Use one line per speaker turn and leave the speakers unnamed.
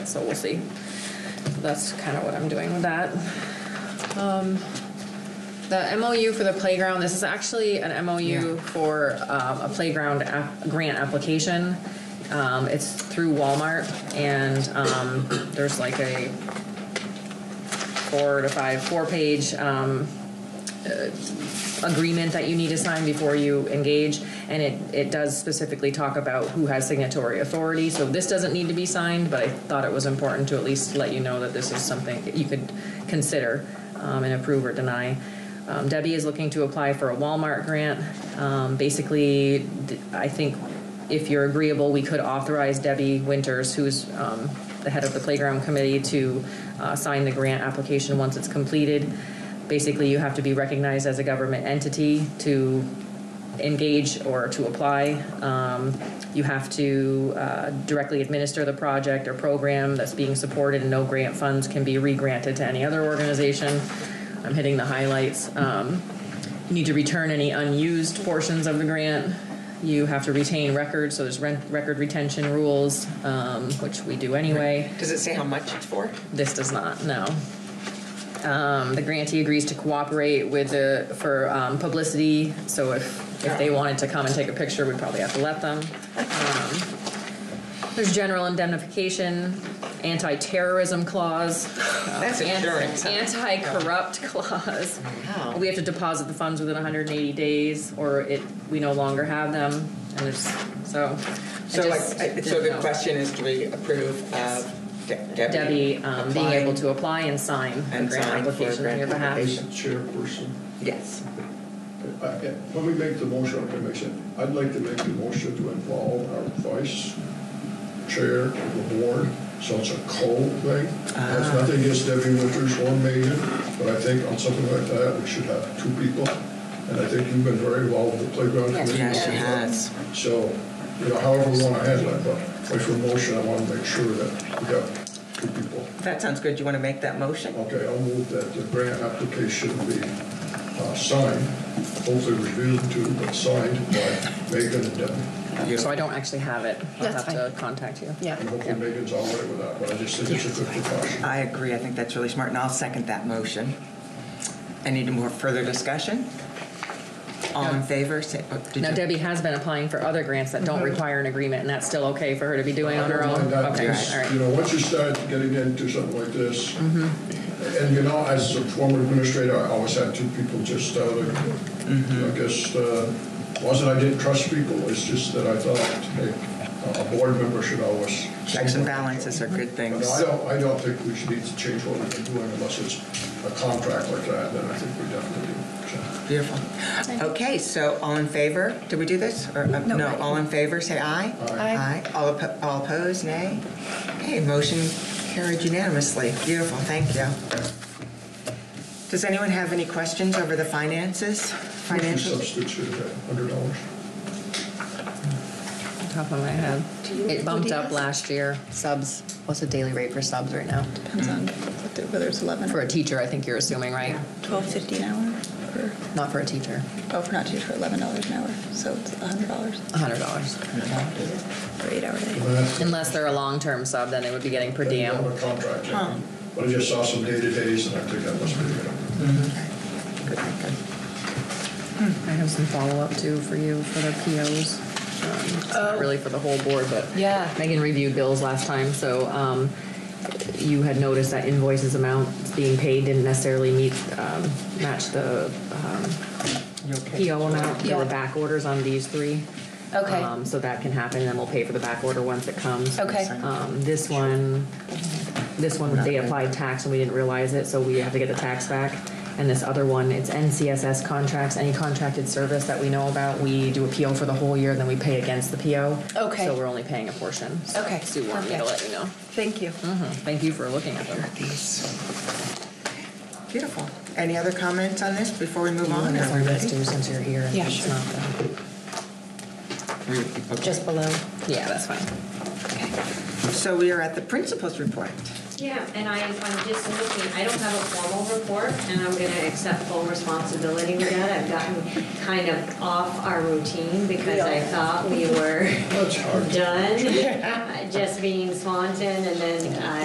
so we'll see. That's kind of what I'm doing with that. Um, the MOU for the playground, this is actually an MOU for um, a playground app, grant application. Um, it's through Walmart and um, there's like a four to five, four page um, agreement that you need to sign before you engage, and it, it does specifically talk about who has signatory authority, so this doesn't need to be signed, but I thought it was important to at least let you know that this is something that you could consider um, and approve or deny. Um, Debbie is looking to apply for a Walmart grant. Um, Basically, th- I think if you're agreeable, we could authorize Debbie Winters, who's um, the head of the playground committee, to uh, sign the grant application once it's completed basically you have to be recognized as a government entity to engage or to apply. Um, you have to uh, directly administer the project or program that's being supported, and no grant funds can be regranted to any other organization. I'm hitting the highlights. Um, you need to return any unused portions of the grant. You have to retain records, so there's rent, record retention rules, um, which we do anyway.
Does it say how much it's for?
This does not, no. Um, the grantee agrees to cooperate with the, for, um, publicity, so if, if they wanted to come and take a picture, we'd probably have to let them. Um, There's general indemnification, anti-terrorism clause.
That's insurance. huh?
Anti-corrupt clause.
Wow.
We have to deposit the funds within hundred and eighty days, or it, we no longer have them, and there's, so. I
So like,
just
I- so
didn't
the
know.
question is, do we approve of De- Debbie?
Debbie, um, being able to apply and sign a
And
grant
sign for a
application on
grant
your behalf.
application.
As a chairperson,
Yes.
I- I- when we make the motion, I motion, I'd like to make the motion to involve our vice chair of the board, so it's a co thing. That's
Ah.
nothing against Debbie Winters or Megan, but I think on something like that, we should have two people. And I think you've been very involved with the playground
Yes,
committee.
yes, she
has.
So, you know, however we want to handle it, but with your motion, I want to make sure that we have two people.
That sounds good. You want to make that motion?
Okay, I'll move that the grant application be uh, signed, hopefully reviewed too, but uh, signed by Megan and Debbie.
So I don't actually have it. I'll
That's
have to contact you.
Yeah.
And hopefully Megan's all right with that, but I just think it's a good precaution.
I agree. I think that's really smart, and I'll second that motion. Any more further discussion? All in favor? Say- oh, did
Now
you-
Debbie has been applying for other grants that don't require an agreement, and that's still okay for her to be doing on her
I don't
own?
mind that,
Okay,
because,
all
You
right.
know, once you start getting into something like this,
Mm-hmm.
and you know, as a former administrator, I always had two people just, uh,
Mm-hmm.
I guess, uh, wasn't I didn't trust people, it's just that I thought, hey, a- a board member should always.
Checks and balances are good
No,
things.
I don't, I don't think we should need to change what we've been doing unless it's a contract like that, then I think we definitely do.
Beautiful. Okay, so all in favor? Did we do this? Or, uh,
No.
No, all in favor, say aye.
Aye.
Aye.
All oppo- all opposed, nay? Okay, motion carried unanimously. Beautiful, thank you. Does anyone have any questions over the finances?
Two
Financials?
substitutes, hundred dollars.
Top of my head. It bumped up last year.
Subs, what's the daily rate for subs right now?
Depends on what the- whether it's 11
For
or
a teacher, I think you're assuming, right?
12.50 an hour. Or,
Not for a teacher.
oh, for not to for $11 an hour. So it's $100
hundred dollars.
for eight hour day.
Unless they're a long-term sub, then they would be getting per diem.
A contract, yeah. but I just saw some day-to-days and I think that must be, the-
Good, good.
I have some follow-up too for you for the POs. Um, it's Not really for the whole board, but.
Oh. Yeah.
Megan reviewed bills last time, so um, you had noticed that invoices amount being paid didn't necessarily meet, um, match the um,
You okay?
PO amount. There were
Yeah.
back orders on these three.
Okay.
Um, So that can happen, and then we'll pay for the back order once it comes.
Okay.
Um, This one, this one, they applied tax and we didn't realize it, so we have to get the tax back. And this other one, it's NCSS contracts, any contracted service that we know about, we do a PO for the whole year, then we pay against the PO.
Okay.
So we're only paying a portion.
Okay,
Sue wanted me to
perfect.
let you know.
Thank you.
Thank you for looking at them.
Beautiful. Any other comments on this before we move on? Are we ready?
since you're here.
Yeah, it's sure. not Just below.
Yeah, that's fine.
So we are at the principal's report.
Yeah, and I, I'm just looking, I don't have a formal report, and I'm gonna accept full responsibility with that. I've gotten kind of off our routine because I thought we were
that's hard.
done, just being Swanton, and then I